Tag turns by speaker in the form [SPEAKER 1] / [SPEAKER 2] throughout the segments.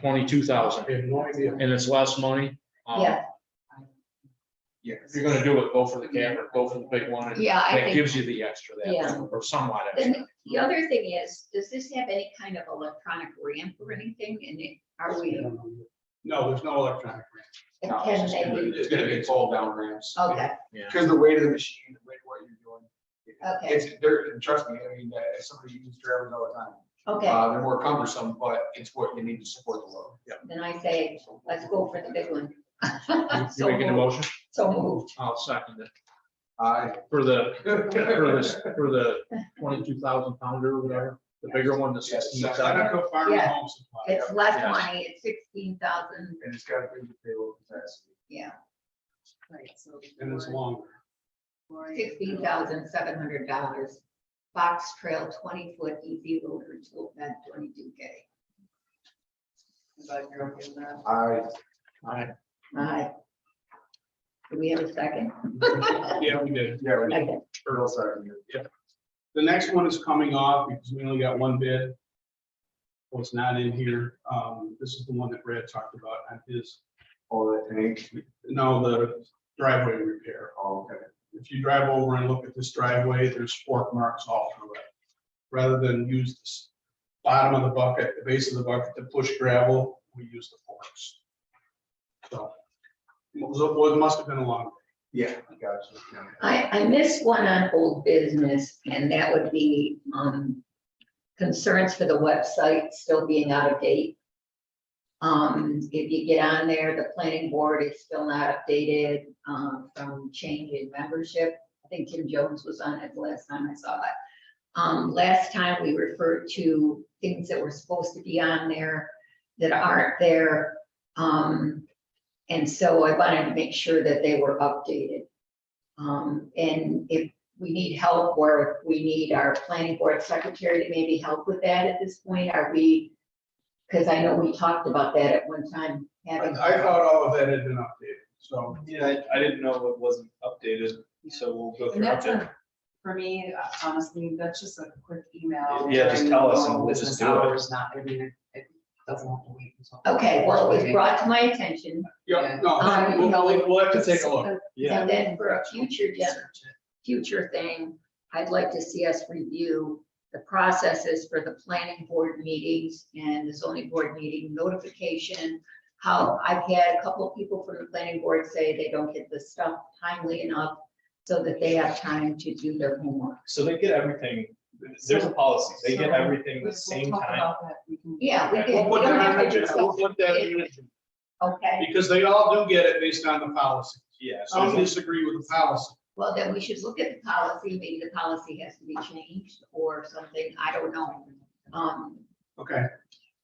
[SPEAKER 1] twenty-two thousand,
[SPEAKER 2] I have no idea.
[SPEAKER 1] and it's less money. um,
[SPEAKER 3] Yeah,
[SPEAKER 1] Yeah, if you're gonna do it, go for the camera, go for the big one, and
[SPEAKER 3] yeah, I
[SPEAKER 1] that
[SPEAKER 3] think,
[SPEAKER 1] gives you the extra
[SPEAKER 3] Yeah.
[SPEAKER 1] that, or somewhat
[SPEAKER 3] and
[SPEAKER 1] extra.
[SPEAKER 3] the other thing is, does this have any kind of electronic ramp or anything in it? Are we,
[SPEAKER 2] No, there's no electronic
[SPEAKER 3] and
[SPEAKER 1] No,
[SPEAKER 3] can
[SPEAKER 1] it's just
[SPEAKER 3] they,
[SPEAKER 1] gonna
[SPEAKER 2] ramp. It's gonna be fold down ramps.
[SPEAKER 3] okay,
[SPEAKER 2] Because the weight of the machine, the weight of what you're doing.
[SPEAKER 3] Okay.
[SPEAKER 2] It's, they're, and trust me, I mean, uh, as somebody who uses trailers all the time.
[SPEAKER 3] okay,
[SPEAKER 2] Uh, they're more cumbersome, but it's what you need to support the load. Yeah.
[SPEAKER 3] then I say, let's go for the big one.
[SPEAKER 1] You
[SPEAKER 3] So
[SPEAKER 1] making a
[SPEAKER 3] moved,
[SPEAKER 1] motion?
[SPEAKER 3] so moved,
[SPEAKER 1] I'll second it.
[SPEAKER 2] I.
[SPEAKER 1] For the, for this, for the twenty-two thousand pounder or whatever, the bigger one, the sixteen thousand.
[SPEAKER 2] Farm
[SPEAKER 3] Yeah.
[SPEAKER 2] Home Supply.
[SPEAKER 3] it's less
[SPEAKER 1] Yes.
[SPEAKER 3] money, it's sixteen thousand,
[SPEAKER 2] And it's got a big payload capacity.
[SPEAKER 3] yeah,
[SPEAKER 4] Right, so.
[SPEAKER 2] longer.
[SPEAKER 3] sixteen thousand seven hundred dollars. Box trail twenty foot easy loader tool bed twenty-two K.
[SPEAKER 4] But you're okay with that?
[SPEAKER 2] I.
[SPEAKER 3] Aye. Do we have a second?
[SPEAKER 5] Yeah, we did.
[SPEAKER 2] Yeah, we
[SPEAKER 3] Okay.
[SPEAKER 2] turtle side.
[SPEAKER 5] The next one is coming off because we only got one bid. Well, it's not in here. Um, this is the one that Brad talked about on his,
[SPEAKER 2] All that tank.
[SPEAKER 5] no, the driveway repair.
[SPEAKER 2] Oh, Okay.
[SPEAKER 5] If you drive over and look at this driveway, there's fork marks all through it. Rather than use this bottom of the bucket, the base of the bucket to push gravel, we use the forks. So, it was- it must have been a long
[SPEAKER 2] Yeah, I got you. Yeah.
[SPEAKER 3] I, I missed one on old business, and that would be, um, concerns for the website still being out of date. Um, if you get on there, the planning board is still not updated, um, from change in membership. I think Tim Jones was on it the last time I saw it. Um, last time we referred to things that were supposed to be on there that aren't there. Um, and so I wanted to make sure that they were updated. Um, and if we need help or if we need our planning board secretary to maybe help with that at this point, are we? Cause I know we talked about that at one time, having.
[SPEAKER 5] I I thought all of that had been updated, so.
[SPEAKER 6] Yeah, I, I didn't know it wasn't updated, so we'll go
[SPEAKER 4] And
[SPEAKER 6] through
[SPEAKER 4] that's
[SPEAKER 6] update.
[SPEAKER 4] a, for me, honestly, that's just a quick email.
[SPEAKER 6] Yeah, just
[SPEAKER 4] during
[SPEAKER 6] tell us
[SPEAKER 4] normal
[SPEAKER 6] and we'll just
[SPEAKER 4] business
[SPEAKER 6] do it.
[SPEAKER 4] Hours, not, I mean, it doesn't have to wait until.
[SPEAKER 3] Okay, well, it was brought to my attention
[SPEAKER 5] Yeah, no,
[SPEAKER 3] Um,
[SPEAKER 5] we'll, we'll- we'll have to take a look.
[SPEAKER 6] Yeah,
[SPEAKER 3] And then for a future gen- future thing, I'd like to see us review the processes for the planning board meetings and the zoning board meeting notification. How I've had a couple of people from the planning board say they don't get the stuff timely enough so that they have time to do their homework.
[SPEAKER 6] so they get everything, there's a policy, they get everything the same time.
[SPEAKER 3] Yeah, we
[SPEAKER 6] Okay,
[SPEAKER 3] did.
[SPEAKER 5] We'll
[SPEAKER 3] We
[SPEAKER 5] put
[SPEAKER 3] don't
[SPEAKER 5] that on
[SPEAKER 3] have
[SPEAKER 5] the
[SPEAKER 3] to do
[SPEAKER 5] agenda, we'll
[SPEAKER 3] something.
[SPEAKER 5] put that on the agenda,
[SPEAKER 3] Okay,
[SPEAKER 5] because they all do get it based on the policy.
[SPEAKER 6] Yeah, so
[SPEAKER 5] Some
[SPEAKER 6] there's
[SPEAKER 5] disagree with the policy.
[SPEAKER 3] well, then we should look at the policy. Maybe the policy has to be changed or something. I don't know. Um,
[SPEAKER 5] Okay,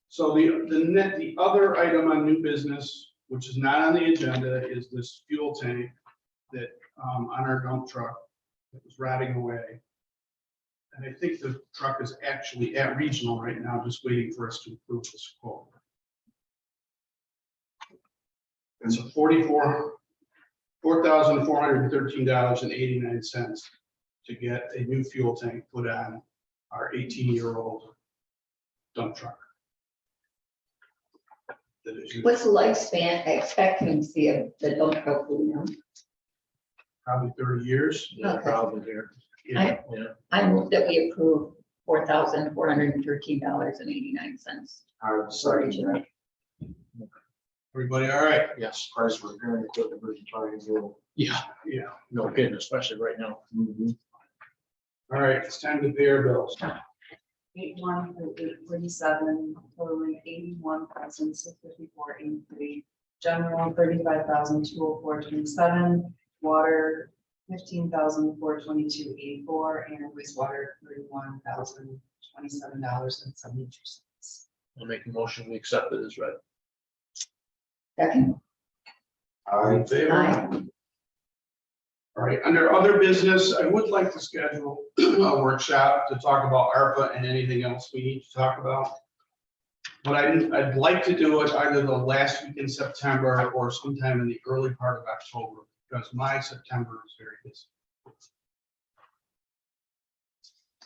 [SPEAKER 5] so the, the net, the other item on new business, which is not on the agenda, is this fuel tank that, um, on our dump truck that was rotting away. And I think the truck is actually at regional right now, just waiting for us to approve this quote. It's a forty-four, four thousand four hundred and thirteen dollars and eighty-nine cents to get a new fuel tank put on our eighteen-year-old dump truck. That is used
[SPEAKER 3] What's the lifespan expectancy of the dump truck, you know?
[SPEAKER 5] probably thirty years.
[SPEAKER 3] Okay.
[SPEAKER 1] Probably here.
[SPEAKER 5] Yeah.
[SPEAKER 3] I move that we approve four thousand four hundred and thirteen dollars and eighty-nine cents.
[SPEAKER 2] I would second that.
[SPEAKER 5] Everybody, all right,
[SPEAKER 1] Yes,
[SPEAKER 2] Price was going to quit the Virgin Triangle.
[SPEAKER 1] yeah,
[SPEAKER 5] yeah,
[SPEAKER 1] no kidding, especially right now.
[SPEAKER 5] all right, it's time to pay our bills.
[SPEAKER 4] Eighty-one, forty-seven, totaling eighty-one thousand, six fifty-four, eighty-three. General, thirty-five thousand, two oh four, twenty-seven. Water, fifteen thousand, four twenty-two, eighty-four, and wastewater, thirty-one thousand, twenty-seven dollars and seventy-two cents.
[SPEAKER 1] I'll make a motion, we accept it as read.
[SPEAKER 3] Second,
[SPEAKER 5] All in favor?
[SPEAKER 3] Aye.
[SPEAKER 5] All right, under other business, I would like to schedule a workshop to talk about ARPA and anything else we need to talk about. But I, I'd like to do it either the last week in September or sometime in the early part of October, because my September is very busy.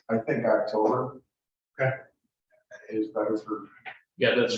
[SPEAKER 2] I think October.
[SPEAKER 5] Okay.
[SPEAKER 2] Is better for
[SPEAKER 1] Yeah, that's